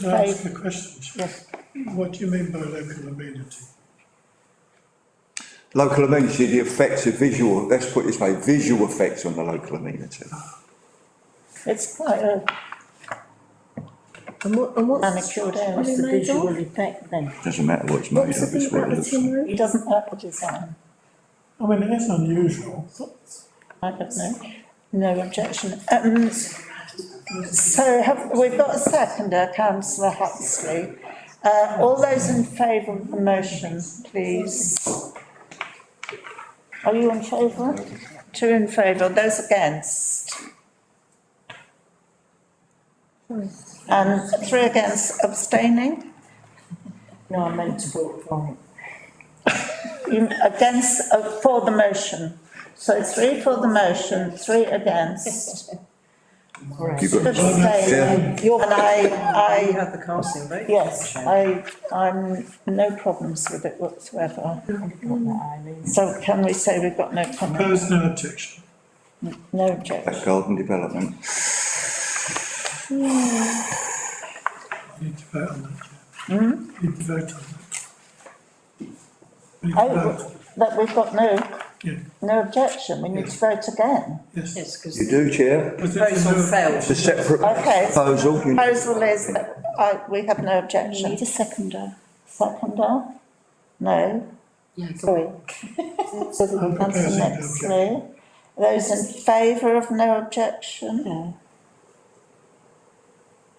Can I ask Right. a question? Yes. What do you mean by local amenity? Local amenity, the effects of visual, let's put it this way, visual effects on the local amenity. It's quite a. And what, and what's, manicured area. What's the visual effect then? Doesn't matter what it's what made was the of, thing it's what it about the looks tin like. He roof? doesn't like the design, I mean, it is unusual. I don't know, no objection. Um, so have, we've got a seconder, councillor Huxley. Uh, all those in favour of the motion, please. Are you in favour? Two in favour, those against? And three against abstaining? No, I meant to vote for it. You- Against, uh, for the motion. So three for the motion, three against. Right. You've got- Abstain. And You I, I, had the casting vote. yes, I, I'm, no problems with it whatsoever. Put that, Eileen. So can we say we've got no comment, There's no objection. no objection? That's garden development. You need to vote on that. yeah. Mm-hmm. You need to vote on that. You need to Oh, vote, that we've got no, yeah, no objection, we need to vote again. yes. Yes, because You do, the Chair. proposal failed. It's a separate Okay. proposal. you- Proposal is, that I, we have no You objection. need a seconder. Seconder? No? Yeah, go Sorry. So the I'm councillor proposing no next Lee. Those in favour of no objection, No.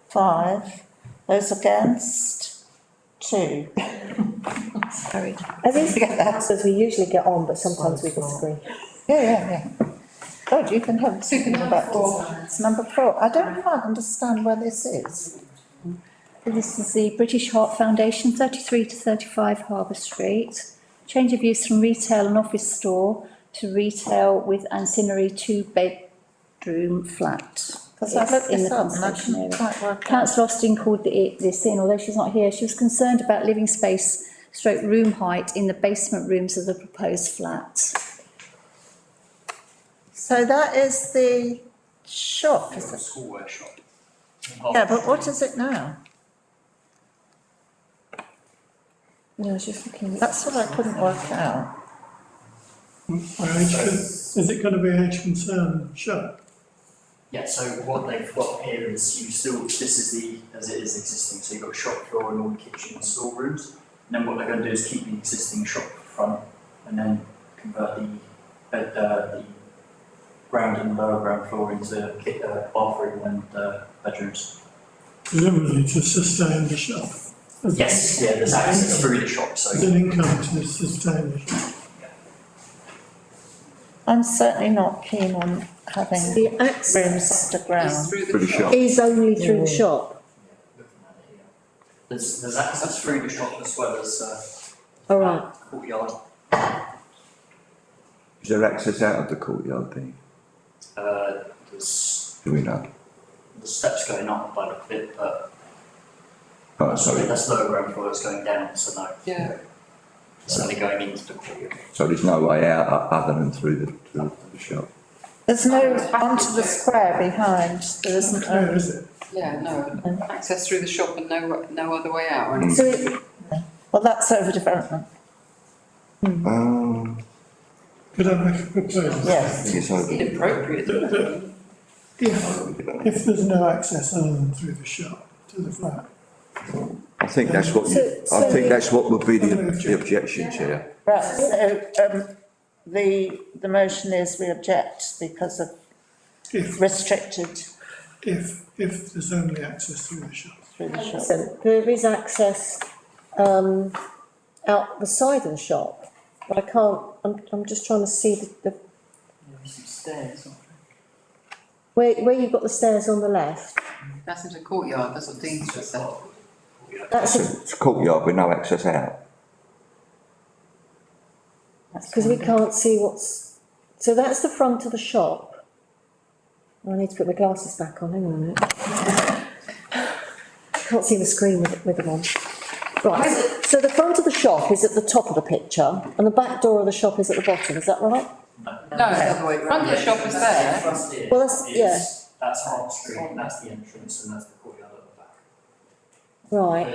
five. Those against, two. Sorry. Are these Forget that. councillors we usually get on, but sometimes we disagree? Yeah, yeah, yeah. God, you can have two about four. It's number four. I don't quite understand where this is. This is the British Heart Foundation, thirty-three to thirty-five Harbour Street. Change of use from retail and office store to retail with ancillary two-bedroom flat. Because I It's looked in the this up and I conservation couldn't area. quite work out. Councillor Austin called the, this in, although she's not here, she was concerned about living space stroke room height in the basement rooms of the proposed flat. So that is the shop, is it? school workshop. Oh, Yeah, but what is it now? No, I was just looking. That's what I couldn't work out. Well, age con- Is it going to be age concern? Sure. Yeah, so what they've got here is you've still, this is the, as it is existing, so you've got shop floor and all the kitchen and storerooms. And then what they're gonna do is keep the existing shop front and then convert the, bed- uh, the ground and lower ground floor into ki- uh, bathroom and, uh, bedrooms. Presumably to sustain the shop. As- Yes, yeah, there's access through the shop, As so. an income to sustain the shop. I'm certainly not keen on having The access rooms underground. Pretty sharp. is only through the shop. Looking at it here. There's, there's access through the shop as well as, uh, All right, courtyard, Is there access out of the courtyard thing? uh, there's, Do we know? there's steps going up by the bit, but Oh, Sorry, sorry. that's lower ground floor, it's going down, so no. Yeah. It's only going into the courtyard. So there's no way out o- other than through the, through the shop. There's no onto the square behind, there isn't Clear, a. is it? Yeah, no, access through the shop and no, no other way out, or So it, Well, that's overdevelopment, Um, Could I make a proposal? I yes. think it's over. inappropriate. That- that If, if there's no access other than through the shop to the flat, I think that's what, you- So- I so- think that's what would be the the objection, Chair. Right, so, um, the, the motion is we object because of if, restricted if, if there's only access through the shop. through the shop. so there is access, um, out the side of the shop. But I can't, I'm, I'm just trying to see the, the, Some stairs. where, where you've got the stairs on the left. That's into courtyard, that's what Dean's just said. That's a It's a courtyard with no access out. Because we can't see what's, so that's the front of the shop. I need to put my glasses back on, hang on a minute. Can't see the screen with, with them on. Right, so the front of the shop is at the top of the picture and the back door of the shop is at the bottom, is that right? No, it's the other way round. Front of the shop is there. Well, that's- yeah. That's Hart Street, that's the entrance, and that's the courtyard at the back. Right.